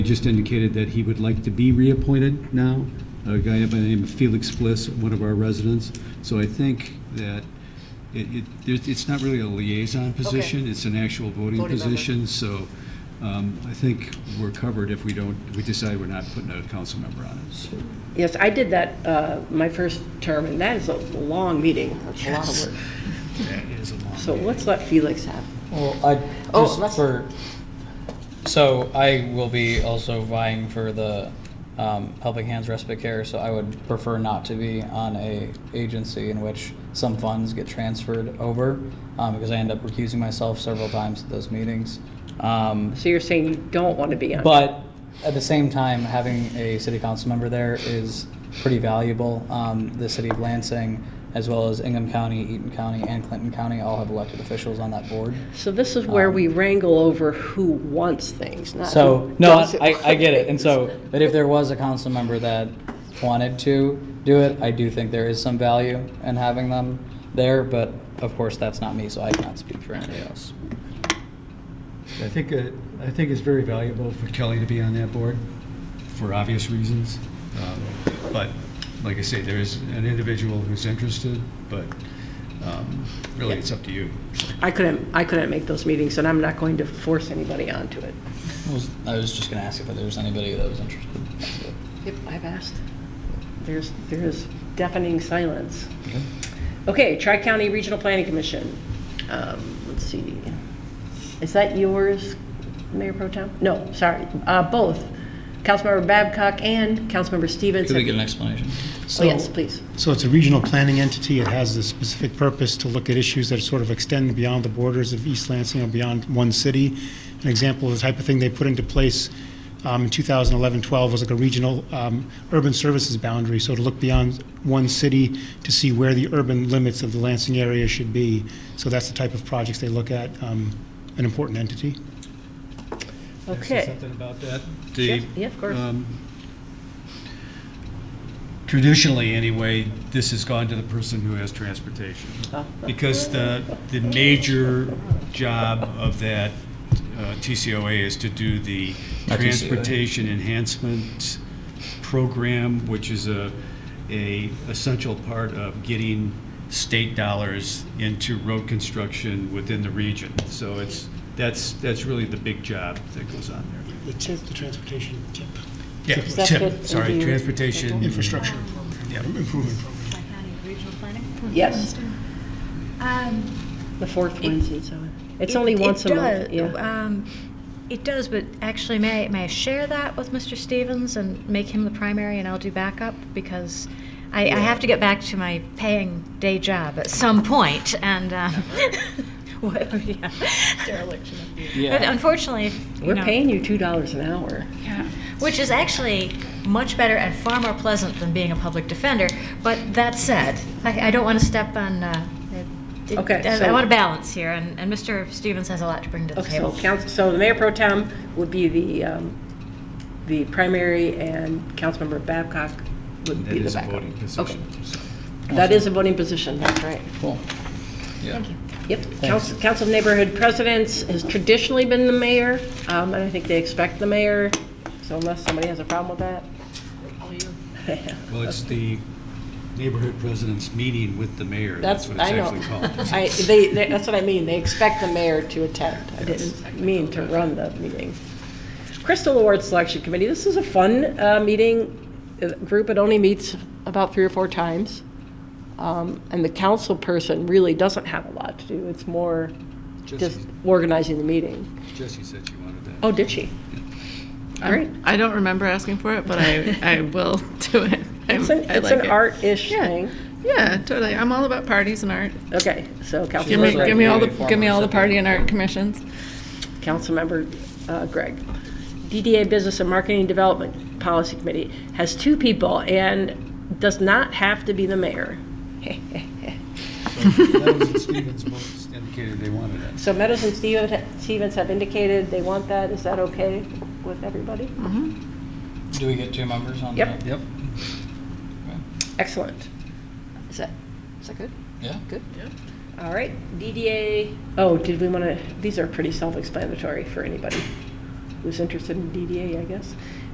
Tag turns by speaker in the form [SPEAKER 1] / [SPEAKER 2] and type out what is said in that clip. [SPEAKER 1] He just indicated that he would like to be reappointed now, a guy by the name of Felix Bliss, one of our residents. So I think that it, it, there's- it's not really a liaison position, it's an actual voting
[SPEAKER 2] Voting member.
[SPEAKER 1] position. So um, I think we're covered if we don't, if we decide we're not putting a council member on it.
[SPEAKER 2] Yes, I did that uh, my first term, and that is a long meeting. That's a lot of work.
[SPEAKER 1] That is a long.
[SPEAKER 2] So let's let Felix have.
[SPEAKER 3] Well, I
[SPEAKER 2] Oh,
[SPEAKER 3] just
[SPEAKER 2] let's-
[SPEAKER 3] for so I will be also vying for the um, Helping Hands Respite Care, so I would prefer not to be on a agency in which some funds get transferred over um, because I end up recusing myself several times at those meetings. Um,
[SPEAKER 2] So you're saying you don't want to be on?
[SPEAKER 3] but at the same time, having a city council member there is pretty valuable. Um, the city of Lansing, as well as Ingham County, Eaton County, and Clinton County, all have elected officials on that board.
[SPEAKER 2] So this is where we wrangle over who wants things, not
[SPEAKER 3] um, So,
[SPEAKER 2] who
[SPEAKER 3] no,
[SPEAKER 2] doesn't
[SPEAKER 3] I, I get it.
[SPEAKER 2] want
[SPEAKER 3] And so,
[SPEAKER 2] things.
[SPEAKER 3] but if there was a council member that wanted to do it, I do think there is some value in having them there, but of course, that's not me, so I cannot speak for anybody else.
[SPEAKER 1] I think, uh, I think it's very valuable for Kelly to be on that board, for obvious reasons. Um, But, like I say, there is an individual who's interested, but um, really, it's up to you.
[SPEAKER 2] I couldn't, I couldn't make those meetings, and I'm not going to force anybody onto it.
[SPEAKER 3] I was- I was just gonna ask if there was anybody that was interested.
[SPEAKER 2] Yep, I've asked. There's, there is deafening silence. Okay, Tri-County Regional Planning Commission. Um, Let's see. Is that yours, Mayor Pro Tem? No, sorry, uh, both. Councilmember Babcock and Councilmember Stevens.
[SPEAKER 3] Could we
[SPEAKER 2] have-
[SPEAKER 3] get an explanation?
[SPEAKER 2] Oh, yes, please.
[SPEAKER 4] So it's a regional planning entity. It has the specific purpose to look at issues that sort of extend beyond the borders of East Lansing or beyond one city. An example of the type of thing they put into place um, in 2011-12 was like a regional um, urban services boundary. So to look beyond one city to see where the urban limits of the Lansing area should be. So that's the type of projects they look at, um, an important entity.
[SPEAKER 2] Okay.
[SPEAKER 1] Something about that?
[SPEAKER 2] Yes, Uh, Yeah, of course.
[SPEAKER 1] Um, Traditionally, anyway, this has gone to the person who has transportation. Because the, the major job of that uh, TCOA is to do the
[SPEAKER 3] Not TCOA.
[SPEAKER 1] Transportation Enhancement Program, which is a, a essential part of getting state dollars into road construction within the region. So it's, that's, that's really the big job that goes on there.
[SPEAKER 4] The tip, the transportation tip.
[SPEAKER 1] Yeah,
[SPEAKER 4] Is
[SPEAKER 2] that
[SPEAKER 1] TIP,
[SPEAKER 2] good?
[SPEAKER 1] sorry,
[SPEAKER 2] Indeed.
[SPEAKER 1] transportation.
[SPEAKER 4] Infrastructure program, improvement program.
[SPEAKER 5] Tri-County Regional Planning?
[SPEAKER 2] Yes.
[SPEAKER 5] Um,
[SPEAKER 2] The fourth Wednesday, so it's
[SPEAKER 5] it-
[SPEAKER 2] only
[SPEAKER 5] it
[SPEAKER 2] once a month.
[SPEAKER 5] does-
[SPEAKER 2] yeah.
[SPEAKER 5] um, It does, but actually, may, I- may I share that with Mr. Stevens and make him the primary and I'll do backup? Because I, I have to get back to my paying day job at some point and, um, whatever, yeah. Dereliction of duty. But
[SPEAKER 3] Yeah.
[SPEAKER 5] unfortunately, if, you
[SPEAKER 2] We're
[SPEAKER 5] know-
[SPEAKER 2] paying you $2 an hour.
[SPEAKER 5] Yeah, which is actually much better and far more pleasant than being a public defender. But that said, I, I don't want to step on. Uh, it-
[SPEAKER 2] Okay,
[SPEAKER 5] I,
[SPEAKER 2] so-
[SPEAKER 5] want to balance here, and, and Mr. Stevens has a lot to bring to the
[SPEAKER 2] Okay, so
[SPEAKER 5] table.
[SPEAKER 2] council, so the mayor pro tem would be the, um, the primary and councilmember Babcock would
[SPEAKER 1] That
[SPEAKER 2] be the
[SPEAKER 1] is a
[SPEAKER 2] backup.
[SPEAKER 1] voting position. so.
[SPEAKER 2] That is a voting position, that's right.
[SPEAKER 3] Cool. Yeah.
[SPEAKER 5] Thank you.
[SPEAKER 2] Yep, council, council of neighborhood presidents has traditionally been the mayor, um, and I think they expect the mayor, so unless somebody has a problem with that.
[SPEAKER 1] Well, it's the neighborhood president's meeting with the mayor. That's
[SPEAKER 2] That's,
[SPEAKER 1] what it's
[SPEAKER 2] I know.
[SPEAKER 1] actually called.
[SPEAKER 2] I, they, they- that's what I mean, they expect the mayor to attend. I didn't mean to run the meeting. Crystal Award Selection Committee, this is a fun uh, meeting, uh, group, it only meets about three or four times. Um, And the council person really doesn't have a lot to do, it's more just
[SPEAKER 1] Jesse-
[SPEAKER 2] organizing the meeting.
[SPEAKER 1] Jesse said she wanted that.
[SPEAKER 2] Oh, did she? All right.
[SPEAKER 6] I don't remember asking for it, but I, I will do it. I-
[SPEAKER 2] It's an,
[SPEAKER 6] I
[SPEAKER 2] it's
[SPEAKER 6] like
[SPEAKER 2] an
[SPEAKER 6] it.
[SPEAKER 2] art-ish
[SPEAKER 6] Yeah.
[SPEAKER 2] thing.
[SPEAKER 6] Yeah, totally. I'm all about parties and art.
[SPEAKER 2] Okay, so
[SPEAKER 6] Give me,
[SPEAKER 3] Right.
[SPEAKER 2] Councilmember,
[SPEAKER 6] give me all the,
[SPEAKER 3] Former
[SPEAKER 6] give me all the
[SPEAKER 3] recipient.
[SPEAKER 6] party and art commissions.
[SPEAKER 2] Councilmember uh, Greg. DDA Business and Marketing Development Policy Committee has two people and does not have to be the mayor.
[SPEAKER 1] So That was what Stevens most indicated they wanted that.
[SPEAKER 2] So Meadows and Steven- Stevens have indicated they want that. Is that okay with everybody?
[SPEAKER 3] Do we get two members on
[SPEAKER 2] Yep.
[SPEAKER 3] that?
[SPEAKER 1] Yep.
[SPEAKER 2] Excellent. Is that, is that good?
[SPEAKER 3] Yeah.
[SPEAKER 2] Good. All right, DDA, oh, did we want to, these are pretty self-explanatory for anybody. who's interested in DDA, I guess.